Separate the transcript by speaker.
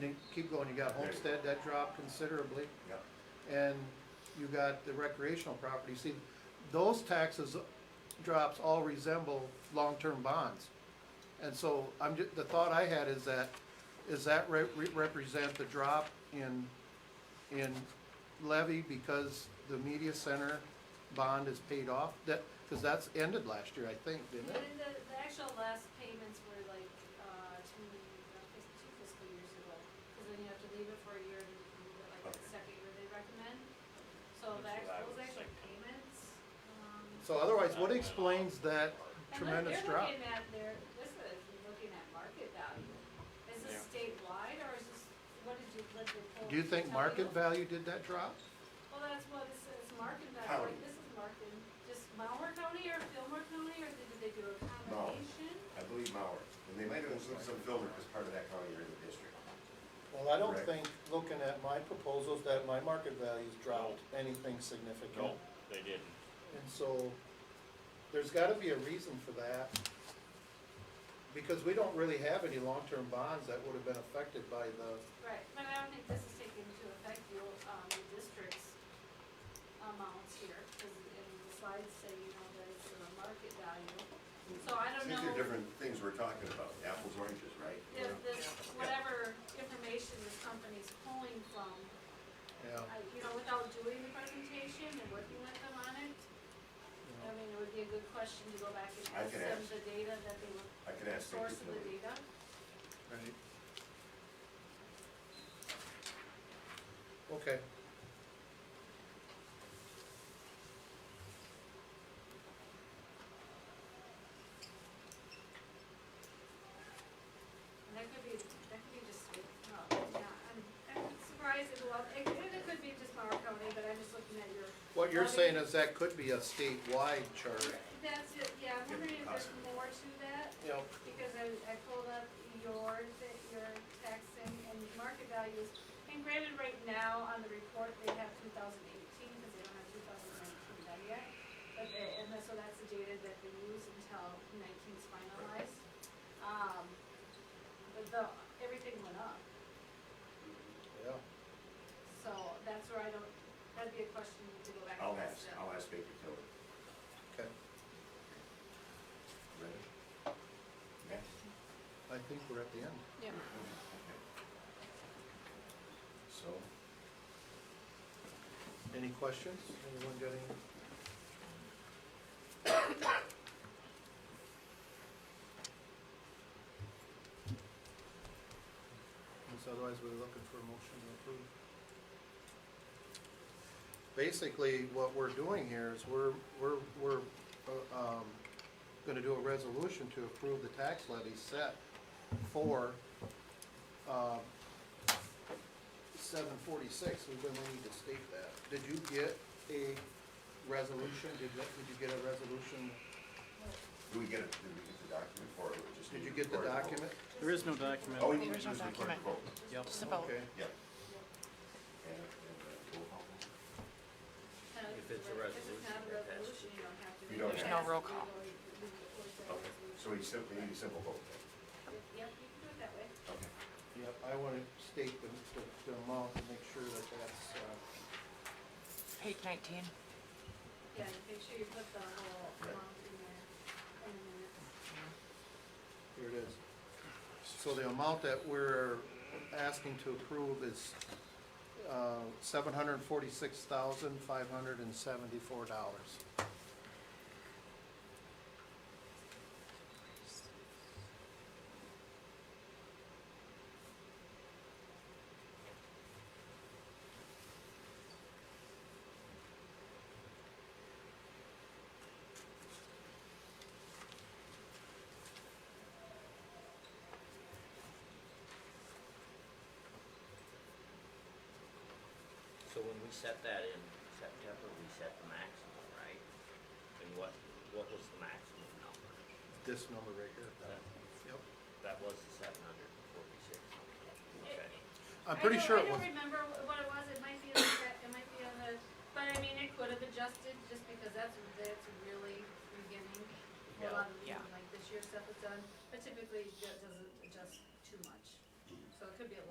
Speaker 1: then keep going, you got Homestead, that dropped considerably,
Speaker 2: yeah.
Speaker 1: and you got the recreational property, see, those taxes uh, drops all resemble long-term bonds. And so, I'm ju- the thought I had is that, is that re- re- represent the drop in, in levy because the media center bond is paid off? That, cause that's ended last year, I think, didn't
Speaker 3: But
Speaker 1: it?
Speaker 3: in the, the actual last payments were like, uh, two, uh, fis- two fiscal years ago, cause then you have to leave it for a year and move it like the
Speaker 2: Okay.
Speaker 3: second year they recommend. So
Speaker 4: That's what I
Speaker 3: that, those
Speaker 4: was
Speaker 3: actual
Speaker 4: thinking.
Speaker 3: payments, um.
Speaker 1: So otherwise, what explains that
Speaker 3: and look,
Speaker 1: tremendous drop?
Speaker 3: They're looking at their, this is looking at market value. Is this
Speaker 4: Yeah.
Speaker 3: statewide or is this, what did you, let the poll?
Speaker 1: Do you think
Speaker 3: tell
Speaker 1: market value did that drop?
Speaker 3: Well, that's what it says, market
Speaker 2: County.
Speaker 3: value, like this is market, just Malheur County or Fillmore County or did did they do a combination?
Speaker 2: I believe Mauer, and they might have included some Fillmore as part of that county or in the district.
Speaker 1: Well, I don't
Speaker 2: Correct.
Speaker 1: think, looking at my proposals, that my market values dropped anything significant.
Speaker 4: No, they didn't.
Speaker 1: And so, there's gotta be a reason for that, because we don't really have any long-term bonds that would have been affected by the,
Speaker 3: Right, but I don't think this is taking into effect the, um, the district's amounts here, cause in the slides say, you know, there's a market value. So I don't
Speaker 2: Since they're
Speaker 3: know
Speaker 2: different things we're talking about, apples, oranges, right?
Speaker 3: if this, whatever information this company's pulling from,
Speaker 1: yeah.
Speaker 3: I, you know, without doing the presentation and working with them on it. I mean, it would be a good question to go back and
Speaker 2: I
Speaker 3: ask
Speaker 2: can
Speaker 3: them
Speaker 2: ask.
Speaker 3: the data that they were,
Speaker 2: I can
Speaker 3: the
Speaker 2: ask. Vicki
Speaker 3: source of the
Speaker 2: Miller.
Speaker 3: data.
Speaker 1: Right. Okay.
Speaker 3: And that could be, that could be just, uh, yeah, I'm, I'm surprised as well, it, and it could be just Mauer County, but I'm just looking at your,
Speaker 1: What you're
Speaker 3: Well,
Speaker 1: saying is that could be a statewide chart.
Speaker 3: that's it, yeah, I'm wondering if there's more to that,
Speaker 1: Yep.
Speaker 3: because I, I pulled up your, th- your tax and, and market values. And granted, right now, on the report, they have two thousand eighteen, because they don't have two thousand nineteen done yet. But they, and that- so that's the data that they use until nineteen's finalized. Um, but the, everything went up.
Speaker 1: Yeah.
Speaker 3: So that's where I don't, that'd be a question to go back
Speaker 2: I'll
Speaker 3: and
Speaker 2: ask,
Speaker 3: ask them.
Speaker 2: I'll ask Baker Tilly.
Speaker 1: Okay,
Speaker 2: Ready? Yes?
Speaker 1: I think we're at the end.
Speaker 3: Yeah.
Speaker 2: So,
Speaker 1: Any questions? Anyone got any? Because otherwise, we're looking for a motion to approve. Basically, what we're doing here is we're, we're, we're, uh, um, gonna do a resolution to approve the tax levy set for, um, seven forty-six, we really need to state that. Did you get a resolution, did, you- did you get a resolution,
Speaker 2: do we get it, did we get the document for it, or we just
Speaker 1: did you
Speaker 2: need to
Speaker 1: get the
Speaker 2: record
Speaker 1: document?
Speaker 5: There is no document.
Speaker 2: vote? Oh, we need to
Speaker 6: There's no
Speaker 2: just record the vote,
Speaker 6: document.
Speaker 5: Yep.
Speaker 6: Just a vote.
Speaker 1: Okay,
Speaker 2: yeah. And, and, uh, roll call vote.
Speaker 3: If it's a resolution. If it's not a resolution, you don't have to.
Speaker 2: You don't
Speaker 6: There's have no to. roll call.
Speaker 2: Okay, so we simply need a simple vote
Speaker 3: Yep, you can do it that way.
Speaker 2: then, okay.
Speaker 1: yep, I wanna state the, the, the amount and make sure that that's, uh,
Speaker 6: Page nineteen.
Speaker 3: Yeah, and make sure you put the whole
Speaker 2: Right.
Speaker 3: amount in there. And then
Speaker 1: here it is. So the amount that we're asking to approve is, uh, seven hundred and forty-six thousand, five hundred and seventy-four dollars.
Speaker 7: So when we set that in September, we set the maximum, right? And what, what was the maximum number?
Speaker 1: This number right here. Yep.
Speaker 7: That was the seven hundred and forty-six. Okay.
Speaker 1: I'm pretty
Speaker 3: I don't-
Speaker 1: sure it
Speaker 3: I
Speaker 1: was.
Speaker 3: don't remember wh- what it was, it might be on that, it might be on the, but I mean, it could have adjusted, just because that's, that's really beginning. for a lot of the-
Speaker 6: Yeah.
Speaker 3: Like this year stuff is done, but typically it do- doesn't adjust too much, so it could be a little